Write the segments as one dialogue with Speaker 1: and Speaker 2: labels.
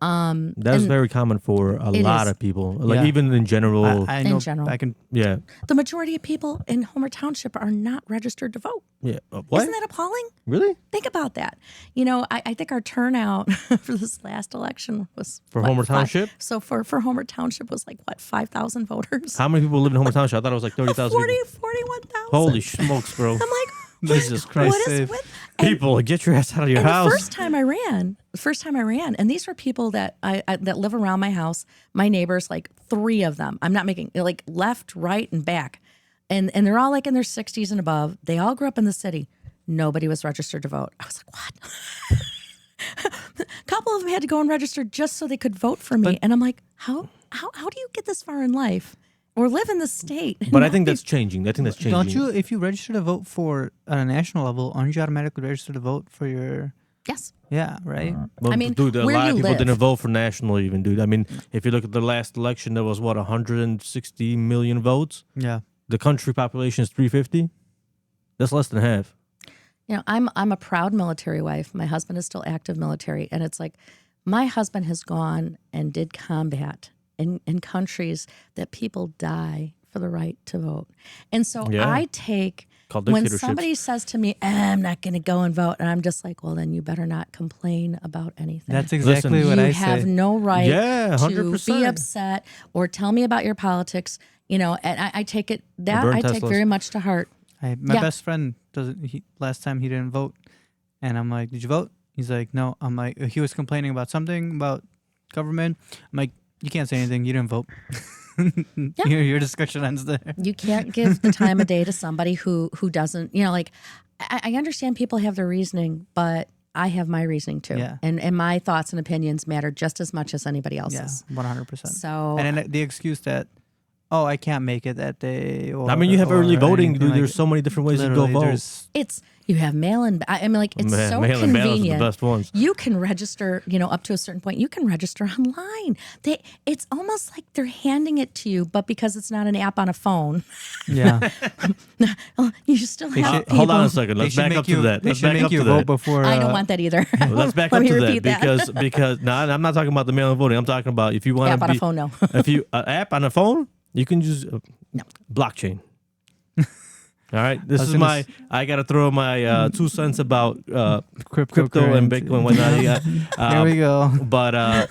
Speaker 1: Um,
Speaker 2: That's
Speaker 1: and
Speaker 2: very common for a
Speaker 1: It
Speaker 2: lot
Speaker 1: is.
Speaker 2: of people. Like
Speaker 3: Yeah.
Speaker 2: even in general,
Speaker 3: I, I
Speaker 1: In
Speaker 3: know
Speaker 1: general.
Speaker 3: I can
Speaker 2: yeah,
Speaker 1: the majority of people in Homer Township are not registered to vote.
Speaker 2: yeah. Uh,
Speaker 1: is
Speaker 2: what?
Speaker 1: Isn't that appalling?
Speaker 2: really?
Speaker 1: Think about that. You know, I, I think our turnout for this last election was
Speaker 2: For
Speaker 1: what,
Speaker 2: Homer
Speaker 1: five-
Speaker 2: Township?
Speaker 1: so for for Homer Township was like what five thousand voters.
Speaker 2: How many people live in Homer Township? I thought it was like thirty thousand.
Speaker 1: 40, 41,000.
Speaker 2: Holy smokes, bro!
Speaker 1: I'm like, what-
Speaker 2: Jesus Christ!
Speaker 1: what is
Speaker 3: Save.
Speaker 1: with and-
Speaker 2: people, get your ass out of your
Speaker 1: and
Speaker 2: house.
Speaker 1: The first time I ran, the first time I ran, and these were people that I, I that live around my house, my neighbors, like three of them. I'm not making like left, right, and back, and and they're all like in their 60s and above. They all grew up in the city. Nobody was registered to vote. I was like, what? A couple of them had to go and register just so they could vote for me, and I'm like, how how how do you get this far in life or live in the state?
Speaker 2: but I think that's changing. I think that's changing.
Speaker 3: Don't you, if you register to vote for on a national level, aren't you automatically registered to vote for your?
Speaker 1: yes.
Speaker 3: Yeah, right.
Speaker 2: Well,
Speaker 1: I mean,
Speaker 2: dude, a
Speaker 1: where
Speaker 2: lot
Speaker 1: you
Speaker 2: of people
Speaker 1: live.
Speaker 2: didn't vote for national, even, dude. I mean, if you look at the last election, there was what 160 million votes.
Speaker 3: Yeah,
Speaker 2: The country population is 350. That's less than half.
Speaker 1: You know, I'm I'm a proud military wife. My husband is still active military, and it's like my husband has gone and did combat in in countries that people die for the right to vote. And so
Speaker 2: Yeah.
Speaker 1: I take
Speaker 2: Called
Speaker 1: when
Speaker 2: dictatorships.
Speaker 1: somebody says to me, "Eh, "I'm not going to go and vote," and I'm just like, "Well, then you better not complain about anything."
Speaker 3: that's exactly
Speaker 2: Listen.
Speaker 3: what
Speaker 1: you
Speaker 3: I
Speaker 1: have
Speaker 3: say.
Speaker 1: no right
Speaker 2: Yeah,
Speaker 1: to
Speaker 2: 100%.
Speaker 1: be upset or tell me about your politics. You know, and I, I take it that
Speaker 2: burn
Speaker 1: I take
Speaker 2: Teslas.
Speaker 1: very much to heart.
Speaker 3: I, my
Speaker 1: Yeah.
Speaker 3: best friend doesn't. He, last time he didn't vote, and I'm like, "Did you vote?" He's like, "No." I'm like, he was complaining about something about government. I'm like, "You can't say anything. You didn't vote." your, your discussion ends there.
Speaker 1: you can't give the time of day to somebody who who doesn't you know like I, I understand people have their reasoning but i have my reasoning too
Speaker 3: Yeah.
Speaker 1: and and my thoughts and opinions matter just as much as anybody
Speaker 3: Yeah,
Speaker 1: else's
Speaker 3: one hundred percent.
Speaker 1: so
Speaker 3: And then the excuse that, "Oh, I can't make it that day." Or,
Speaker 2: I mean, you have early
Speaker 3: or
Speaker 2: voting,
Speaker 3: anything
Speaker 2: dude.
Speaker 3: like-
Speaker 2: there's so many different ways to go
Speaker 3: literally,
Speaker 2: vote.
Speaker 3: there's-
Speaker 1: it's you have mail in i I mean like it's
Speaker 2: Man,
Speaker 1: so
Speaker 2: mail and ballots are the
Speaker 1: convenient
Speaker 2: best ones.
Speaker 1: you can register you know up to a certain point you can register online they it's almost like they're handing it to you but because it's not an app on a phone
Speaker 3: Yeah.
Speaker 1: you still have
Speaker 2: Uh,
Speaker 1: people
Speaker 2: hold on a second.
Speaker 3: They
Speaker 2: Let's
Speaker 3: should
Speaker 2: back
Speaker 3: make
Speaker 2: up
Speaker 3: you,
Speaker 2: to that.
Speaker 3: They
Speaker 2: Let's
Speaker 3: should
Speaker 2: back
Speaker 3: make
Speaker 2: up
Speaker 3: you
Speaker 2: to
Speaker 3: vote
Speaker 2: that.
Speaker 3: before.
Speaker 1: i don't
Speaker 3: uh,
Speaker 1: want that either
Speaker 2: Let's back
Speaker 1: Let
Speaker 2: up
Speaker 1: me
Speaker 2: to that,
Speaker 1: repeat
Speaker 2: because because no, I'm not talking about the mail and voting. I'm talking about if you want
Speaker 1: App
Speaker 2: to
Speaker 1: on a
Speaker 2: be,
Speaker 1: phone, no.
Speaker 2: if you uh, app on a phone, you can use uh, blockchain. All right, this
Speaker 3: was
Speaker 2: is
Speaker 3: gonna
Speaker 2: my.
Speaker 3: s-
Speaker 2: I gotta throw my uh, two cents about uh, crypto and
Speaker 3: cryptocurrency.
Speaker 2: Bitcoin, whatnot. Yeah.
Speaker 3: There
Speaker 2: Um,
Speaker 3: we go.
Speaker 2: But uh,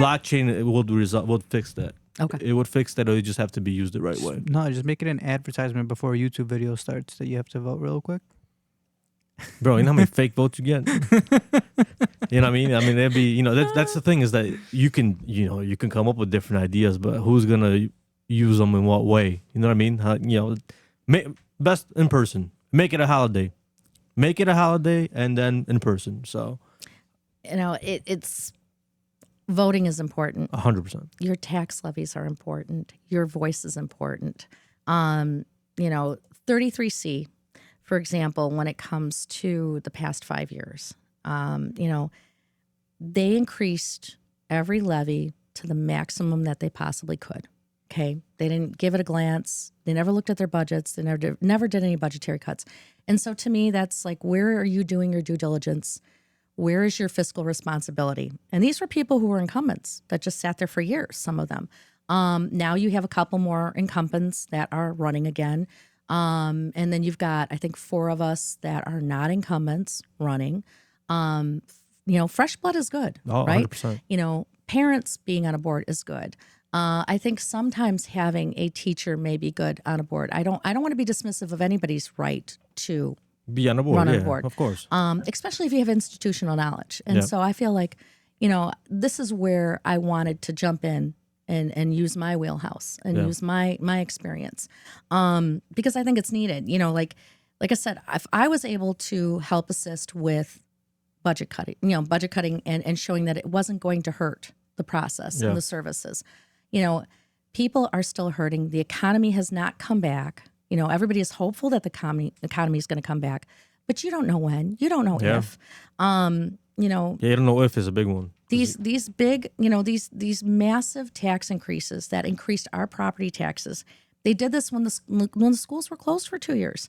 Speaker 2: blockchain would result would fix that.
Speaker 1: Okay.
Speaker 2: it would fix that. It would just have to be used the right way.
Speaker 3: No, just make it an advertisement before a YouTube video starts that you have to vote real quick.
Speaker 2: Bro, you know how many fake votes you get? you know what I mean? I mean, there'd be, you know, that, that's the thing is that you can, you know, you can come up with different ideas, but who's going to use them in what way? You know what I mean? How, you know, ma- best in person. Make it a holiday. Make it a holiday and then in person. So
Speaker 1: you know it, it's voting is important
Speaker 2: 100%.
Speaker 1: your tax levies are important. Your voice is important. Um, you know, 33C, for example, when it comes to the past five years, um, you know, they increased every levy to the maximum that they possibly could. Okay, they didn't give it a glance. They never looked at their budgets. They never did, never did any budgetary cuts. And so, to me, that's like, where are you doing your due diligence? where is your fiscal responsibility? And these were people who were incumbents that just sat there for years, some of them. Um, now you have a couple more incumbents that are running again. Um, and then you've got, I think, four of us that are not incumbents running. Um, you know, fresh blood is good,
Speaker 2: Oh,
Speaker 1: right?
Speaker 2: 100%.
Speaker 1: You know, parents being on a board is good. Uh, I think sometimes having a teacher may be good on a board. I don't. I don't want to be dismissive of anybody's right to
Speaker 2: Be on a board.
Speaker 1: Run on
Speaker 2: yeah,
Speaker 1: board.
Speaker 2: Of course.
Speaker 1: um, especially if you have institutional knowledge. And
Speaker 2: Yeah.
Speaker 1: so I feel like, you know, this is where I wanted to jump in and and use my wheelhouse and
Speaker 2: Yeah.
Speaker 1: use my my experience um, because I think it's needed. You know, like like I said, if I was able to help assist with budget cutting, you know, budget cutting and and showing that it wasn't going to hurt the process
Speaker 2: Yeah.
Speaker 1: and the services, you know. People are still hurting. The economy has not come back. You know, everybody is hopeful that the economy economy is going to come back, but you don't know when. You don't know
Speaker 2: Yeah.
Speaker 1: if. Um, you know,
Speaker 2: Yeah, you don't know if it's a big one.
Speaker 1: these these big you know these these massive tax increases that increased our property taxes they did this when the s- when the schools were closed for 2 years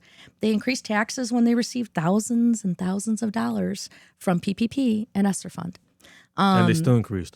Speaker 1: they increased taxes when they received thousands and thousands of dollars from PPP and ESSER fund Um,
Speaker 2: and they still increased.